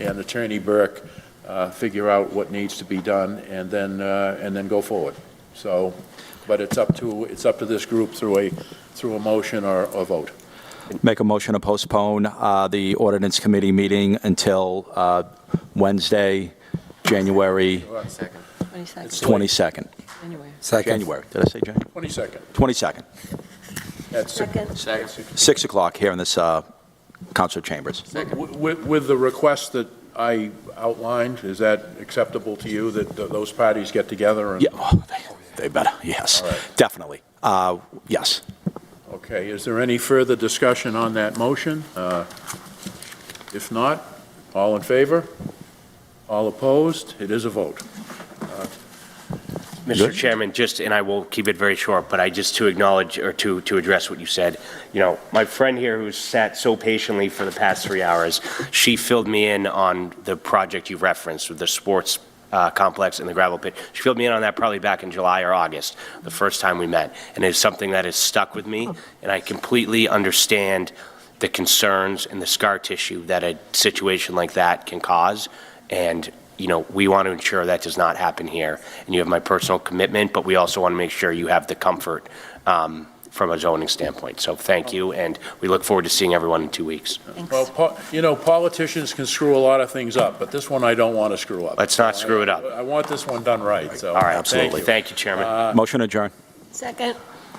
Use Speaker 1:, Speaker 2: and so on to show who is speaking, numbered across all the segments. Speaker 1: and Attorney Burke uh, figure out what needs to be done, and then, uh, and then go forward. So, but it's up to, it's up to this group through a, through a motion or a vote.
Speaker 2: Make a motion to postpone uh, the ordinance committee meeting until uh, Wednesday, January
Speaker 3: Second.
Speaker 4: 22nd,
Speaker 2: 22nd.
Speaker 4: anyway.
Speaker 2: January, did I say January?
Speaker 1: 22nd.
Speaker 2: 22nd,
Speaker 1: That's-
Speaker 4: Second,
Speaker 3: Second.
Speaker 2: 6 o'clock here in this uh, council chambers.
Speaker 1: Wi- wi- With the request that I outlined, is that acceptable to you, that th- those parties get together? and-
Speaker 2: Yeah, well, they- they better, yes,
Speaker 1: All right.
Speaker 2: definitely. Uh, Yes.
Speaker 1: Okay, is there any further discussion on that motion? Uh, If not, all in favor? All opposed? It is a vote.
Speaker 5: Mr. Chairman, just, and I will keep it very short, but I just to acknowledge or to, to address what you said, you know, my friend here who's sat so patiently for the past three hours, she filled me in on the project you referenced with the sports uh, complex and the gravel pit. She filled me in on that probably back in July or August, the first time we met. And it's something that has stuck with me, and I completely understand the concerns and the scar tissue that a situation like that can cause. And you know, we want to ensure that does not happen here. And you have my personal commitment, but we also want to make sure you have the comfort um, from a zoning standpoint. So thank you, and we look forward to seeing everyone in two weeks.
Speaker 1: Well,
Speaker 4: thanks.
Speaker 1: po- you know, politicians can screw a lot of things up, but this one I don't want to screw up.
Speaker 5: Let's not screw it up.
Speaker 1: I want this one done right, so.
Speaker 5: All right.
Speaker 1: thank you.
Speaker 5: Thank you, Chairman.
Speaker 2: Motion adjourned.
Speaker 4: Second.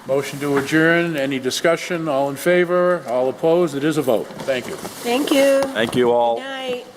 Speaker 1: Motion to adjourn, any discussion? All in favor? All opposed? It is a vote. Thank you.
Speaker 4: Thank you.
Speaker 2: Thank you all.
Speaker 4: Night.